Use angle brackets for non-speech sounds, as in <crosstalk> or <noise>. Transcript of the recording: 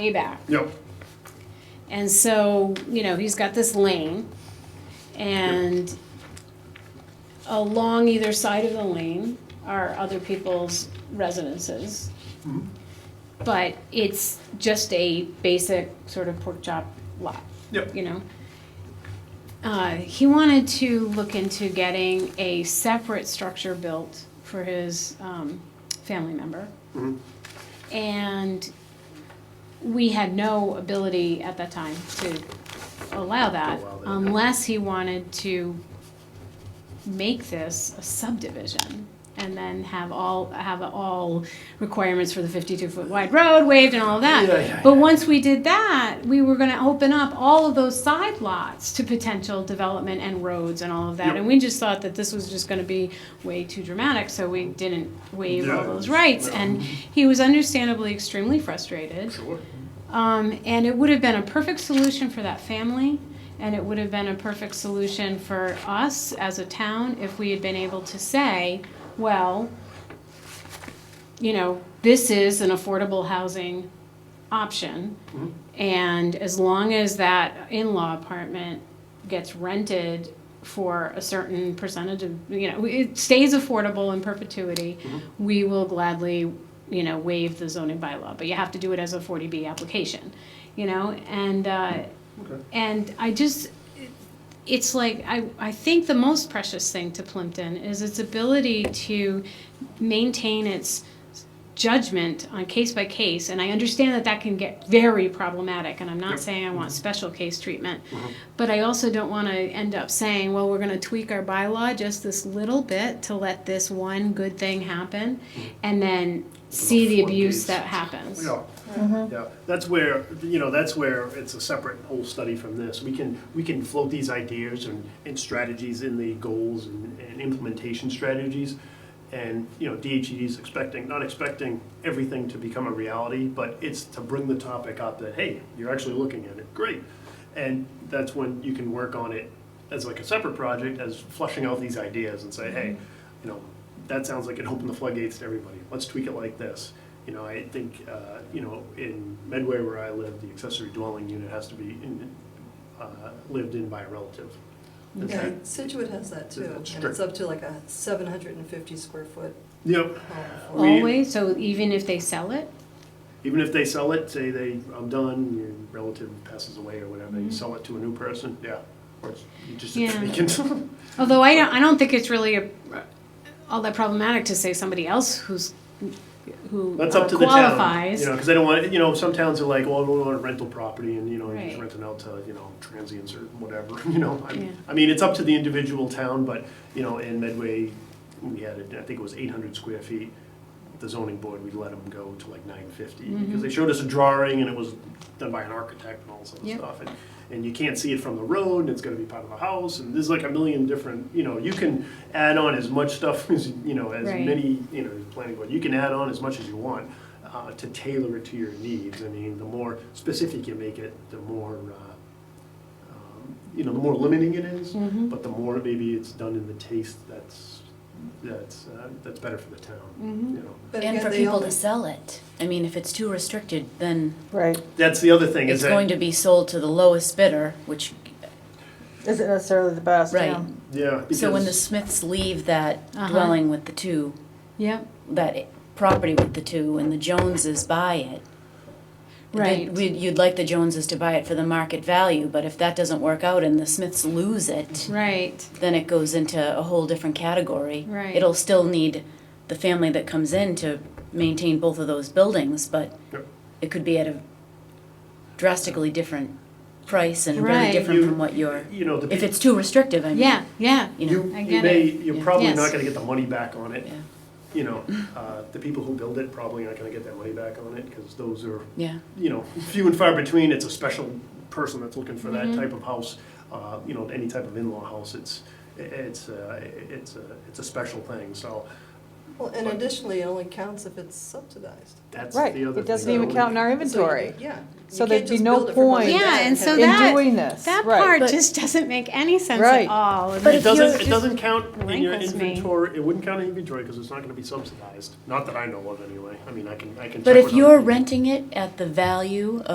way back. Yep, And so, you know, he's got this lane and along either side of the lane are other people's residences. Mhm. But it's just a basic sort of pork chop lot. Yep. You know? Uh, he wanted to look into getting a separate structure built for his, um, family member. Mhm. And we had no ability at that time to allow that To allow that. unless he wanted to make this a subdivision and then have all, have all requirements for the fifty-two foot wide road waived and all of Yeah, yeah, that. But once we did that, we were gonna open up all of those side lots to potential development and roads and all of that. Yep. And we just thought that this was just gonna be way too dramatic, so we didn't waive all Yeah. those rights. And he was understandably extremely frustrated. sure. Um, and it would have been a perfect solution for that family, and it would have been a perfect solution for us as a town if we had been able to say, well, you know, this is an affordable housing option. Mhm. And as long as that in-law apartment gets rented for a certain percentage of, you know, it stays affordable in perpetuity, Mm-hmm. we will gladly, you know, waive the zoning bylaw, but you have to do it as a forty B application, you know, and, uh, Okay. and I just, it's like, I, I think the most precious thing to Plimpton is its ability to maintain its judgment on case by case, and I understand that that can get very problematic, and I'm not Yep. saying I want special case treatment, Mm-hmm. but I also don't want to end up saying, well, we're going to tweak our bylaw just this little bit to let this one good thing happen, Mm-hmm. and then see the abuse floodgates. that happens. Yeah, yeah, that's where, you know, that's where it's a separate whole study from this. We can, we can float these ideas and, and strategies in the goals and, and implementation strategies. And, you know, DHED is expecting, not expecting everything to become a reality, but it's to bring the topic up that, hey, you're actually looking at it, great. And that's when you can work on it as like a separate project, as flushing out these ideas and say, hey, you know, that sounds like it opened the floodgates to everybody. Let's tweak it like this. You know, I think, uh, you know, in Medway where I live, the accessory dwelling unit has to be in, uh, lived in by a relative. Is Yeah, that- Situate has that too, That's and strict. it's up to like a seven hundred and fifty square foot Yep, home. for- We- Always, so even if they sell it, even if they sell it, say they, I'm done, your relative passes away or whatever, you sell it to a new person, yeah. Or it's- you just, <laughs> you Yeah. can- Although I don't, I don't think it's really a, all that problematic to say somebody else who's, who that's up uh, to the town. qualifies. You know, because they don't want, you know, some towns are like, well, we want a rental property and, you know, you're just Right. renting out to, you know, transients or whatever, <laughs> you know. I- Yeah. I mean, it's up to the individual town, but, you know, in Medway, we had, it. I think it was eight hundred square feet. The zoning board, we let them go to like nine fifty, Mm-hmm. because they showed us a drawing and it was done by an architect and all this other Yep. stuff. And, and you can't see it from the road, and it's gonna be part of the house, and there's like a million different, you know, you can add on as much stuff <laughs> as, you know, as Right. many any, you know, planning board, you can add on as much as you want uh, to tailor it to your needs. I mean, the more specific you make it, the more, uh, um, you know, the more limiting it is, Mm-hmm. Mhm. but the more maybe it's done in the taste that's, that's, uh, that's better for the town, Mhm. you know. But And again, for they people only- to sell it. I mean, if it's too restricted, then Right. That's the other thing, is it's that. going to be sold to the lowest bidder, which, Isn't necessarily the best. Right. yeah. Yeah. so when the because- Smiths leave that Uh-huh. dwelling with the two, Yep, that i- property with the two, and the Joneses buy it. they- Right. we'd- You'd like the Joneses to buy it for the market value, but if that doesn't work out and the Smiths lose it, right, then it goes into a whole different category. Right. It'll still need the family that comes in to maintain both of those buildings, but Yep. it could be at a drastically different price and really Right. different You- from what you're, You know, the. if peop- it's too restrictive, I mean. yeah, yeah, You know, You, I you get may, it. you're Yeah. probably not Yes. gonna get the money back on it, Yeah. you know. Uh, The people who build it probably aren't gonna get their money back on it, because those are yeah. you know, few and far between. It's a special person that's looking for that type of house. Uh, you know, any type of in-law house. It's it's uh, it's a it's a special thing. So Well, and additionally, it only counts if it's subsidized. that's Right. the other. It doesn't thing. even count in our So you- inventory. Yeah. You So can't there'd be just no build it for mom point Yeah, dad and so have- In that- doing this. That right. part But- just doesn't make any sense at Right. all. But It if you're doesn't, it just- doesn't count in your rankles me. inventory, it wouldn't count in inventory because it's not gonna be subsidized. Not that I know of anyway. I mean, I can, I can check But with if other you're people. renting it at the value